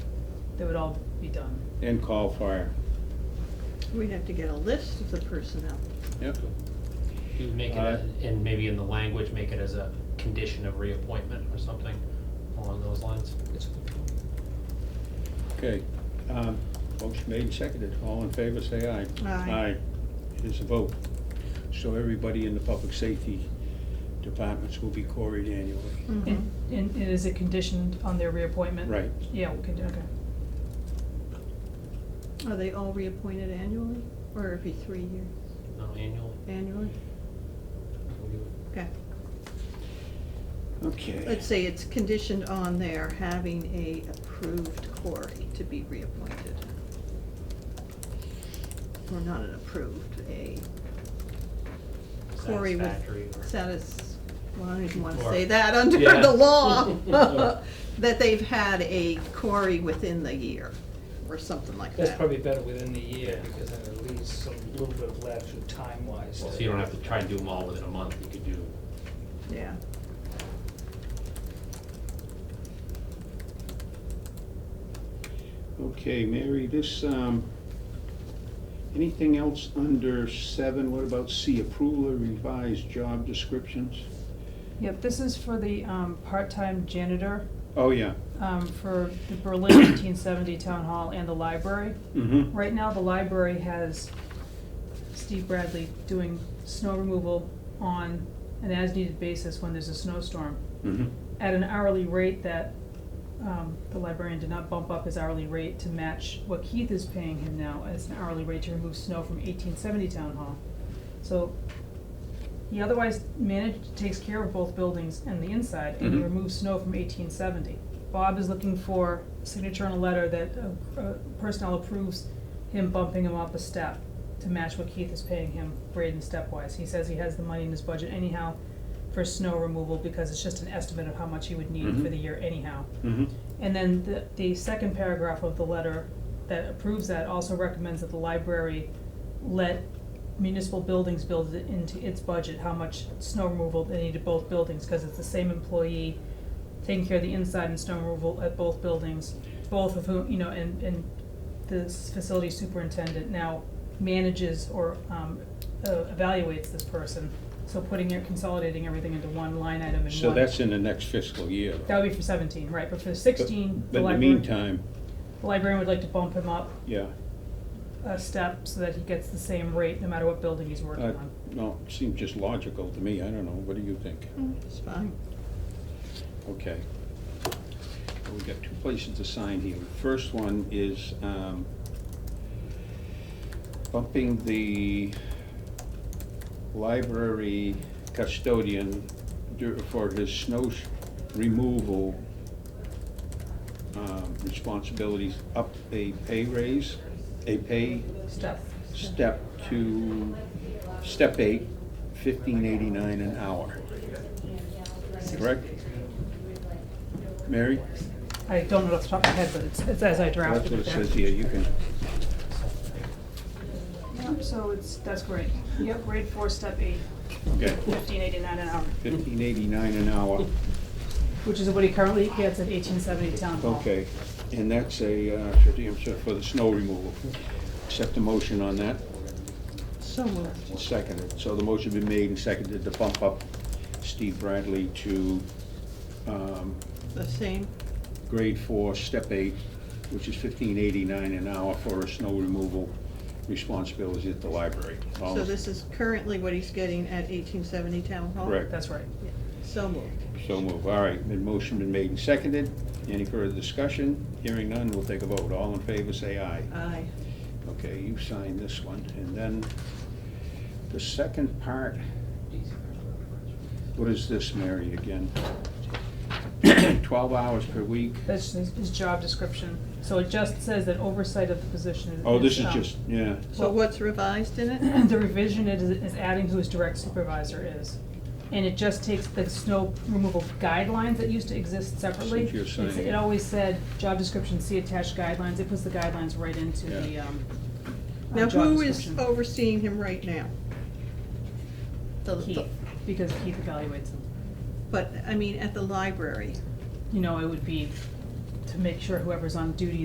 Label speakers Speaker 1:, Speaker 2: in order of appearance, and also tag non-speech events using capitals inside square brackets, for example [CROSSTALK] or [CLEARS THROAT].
Speaker 1: They would all be done.
Speaker 2: and call fire.
Speaker 3: We'd have to get a list of the personnel.
Speaker 2: Yep.
Speaker 4: You make it, a- and maybe in the language, make it as a condition of reappointment or something along those lines.
Speaker 2: Okay. Um, Motion made and seconded. All in favor, say aye.
Speaker 3: Aye.
Speaker 2: It is a vote. So everybody in the public safety departments will be queried annually.
Speaker 1: And,
Speaker 3: Mm-hmm.
Speaker 1: and it is a condition on their reappointment?
Speaker 2: Right.
Speaker 1: Yeah, we can do, okay.
Speaker 3: Are they all reappointed annually, or every three years,
Speaker 4: No, annually.
Speaker 3: annually? Okay,
Speaker 2: Okay.
Speaker 3: let's say it's conditioned on their having a approved quarry to be reappointed. Or not an approved, a quarry with
Speaker 4: Satisfactory or-
Speaker 3: satis, well, I don't even wanna
Speaker 4: Or-
Speaker 3: say that under
Speaker 4: Yeah.
Speaker 3: the law.
Speaker 5: [LAUGHS]
Speaker 3: [LAUGHS]
Speaker 4: Or-
Speaker 3: That they've had a quarry within the year, or something like that.
Speaker 5: That's probably better within the year,
Speaker 4: Yeah.
Speaker 5: because then it leaves some little bit of latitude time-wise.
Speaker 4: So you don't have to try and do them all within a month, you could do
Speaker 3: Yeah.
Speaker 2: Okay, Mary, this, um, anything else under seven? What about C, approval of revised job descriptions?
Speaker 1: Yep, this is for the, um, part-time janitor,
Speaker 2: Oh, yeah.
Speaker 1: um, for the Berlin eighteen seventy Town Hall and the library.
Speaker 2: Mm-hmm.
Speaker 1: Right now, the library has Steve Bradley doing snow removal on an as-needed basis when there's a snowstorm
Speaker 2: Mm-hmm.
Speaker 1: at an hourly rate that, um, the librarian did not bump up his hourly rate to match what Keith is paying him now as an hourly rate to remove snow from eighteen seventy Town Hall. So he otherwise managed, takes care of both buildings and the inside, and he
Speaker 2: Mhm.
Speaker 1: removes snow from eighteen seventy. Bob is looking for signature on a letter that, uh, uh, personnel approves him bumping him up a step to match what Keith is paying him grade and stepwise. He says he has the money in his budget anyhow for snow removal because it's just an estimate of how much he would need for
Speaker 2: Mhm.
Speaker 1: the year anyhow.
Speaker 2: Mm-hmm.
Speaker 1: And then the, the second paragraph of the letter that approves that also recommends that the library let municipal buildings build it into its budget, how much snow removal they need at both buildings, cause it's the same employee taking care of the inside and snow removal at both buildings, both of whom, you know, and, and the s- facility superintendent now manages or, um, uh, evaluates this person. So putting it, consolidating everything into one line item and one.
Speaker 2: So that's in the next fiscal year. though.
Speaker 1: That would be for seventeen, right, but for sixteen,
Speaker 2: But
Speaker 1: the
Speaker 2: in the
Speaker 1: library,
Speaker 2: meantime,
Speaker 1: the librarian would like to bump him up
Speaker 2: yeah.
Speaker 1: a step so that he gets the same rate no matter what building he's working
Speaker 2: Uh,
Speaker 1: on.
Speaker 2: No, it seems just logical to me. I don't know. What do you think?
Speaker 3: It's fine.
Speaker 2: Okay. So We've got two places to sign here. The First one is um, bumping the library custodian dur- for his snow sh- removal um, responsibilities up a pay raise, a pay
Speaker 1: Step,
Speaker 2: step to, step eight, fifteen eighty-nine an hour. Correct? Mary?
Speaker 1: I don't know off the top of my head, but it's, it's as I
Speaker 2: That's
Speaker 1: drafted
Speaker 2: what
Speaker 1: it
Speaker 2: it
Speaker 1: there.
Speaker 2: says here, you can,
Speaker 1: Yep, so it's, that's great. Yep, grade four, step eight,
Speaker 2: okay,
Speaker 1: fifteen eighty-nine an hour,
Speaker 2: fifteen eighty-nine an hour,
Speaker 1: which is what he currently gets at eighteen seventy town hall.
Speaker 2: okay. And that's a, uh, for the- for the snow removal. Accept a motion on that,
Speaker 3: So moved.
Speaker 2: seconded. So the motion been made and seconded to bump up Steve Bradley to, um,
Speaker 3: The same,
Speaker 2: grade four, step eight, which is fifteen eighty-nine an hour for a snow removal responsibilities at the library. All
Speaker 3: so this is currently what he's getting at eighteen seventy Town Hall?
Speaker 2: Correct.
Speaker 1: That's right.
Speaker 3: Yeah. So moved.
Speaker 2: So move, all right, been motion been made and seconded, any further discussion? Hearing none, we'll take a vote, all in favor say aye.
Speaker 3: Aye.
Speaker 2: Okay, you sign this one, and then the second part, what is this, Mary, again? [CLEARS THROAT] Twelve hours per week,
Speaker 1: That's his, his job description. So it just says that oversight of the position is.
Speaker 2: oh, this is
Speaker 1: um,
Speaker 2: just, yeah,
Speaker 3: So what's revised in
Speaker 1: [CLEARS THROAT]
Speaker 3: it?
Speaker 1: the revision is, is adding who his direct supervisor is. And it just takes the snow removal guidelines that used to exist separately.
Speaker 2: Since you're saying-
Speaker 1: It's- It always said, job description, see attached guidelines, it puts the guidelines right into the,
Speaker 2: Yeah.
Speaker 1: um, uh,
Speaker 3: Now,
Speaker 1: job
Speaker 3: who is
Speaker 1: description.
Speaker 3: overseeing him right now? The- the-
Speaker 1: Keith, because Keith evaluates them.
Speaker 3: But, I mean, at the library.
Speaker 1: You know, it would be to make sure whoever's on duty